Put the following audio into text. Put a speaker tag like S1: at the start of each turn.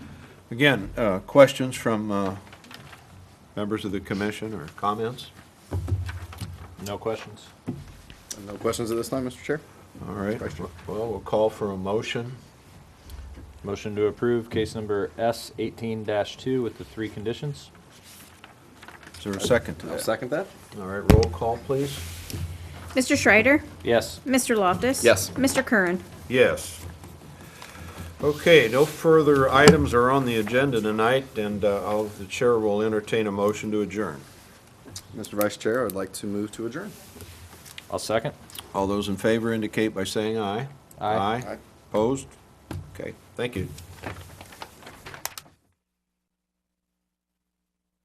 S1: Again, uh, questions from uh, members of the commission or comments? No questions?
S2: No questions at this time, Mr. Chair?
S1: All right,
S2: Question.
S1: well, we'll call for a motion.
S3: Motion to approve case number S eighteen two with the three conditions.
S1: Is there a second to
S2: I'll
S1: that?
S2: second that.
S1: All right, roll call, please.
S4: Mr. Schreider?
S3: Yes.
S4: Mr. Loftus?
S2: Yes.
S4: Mr. Curran?
S1: Yes. Okay, no further items are on the agenda tonight, and uh, I'll- the chair will entertain a motion to adjourn.
S2: Mr. Vice Chair, I'd like to move to adjourn.
S3: I'll second.
S1: All those in favor indicate by saying aye.
S3: Aye.
S2: Aye.
S1: Opposed? Okay, thank you.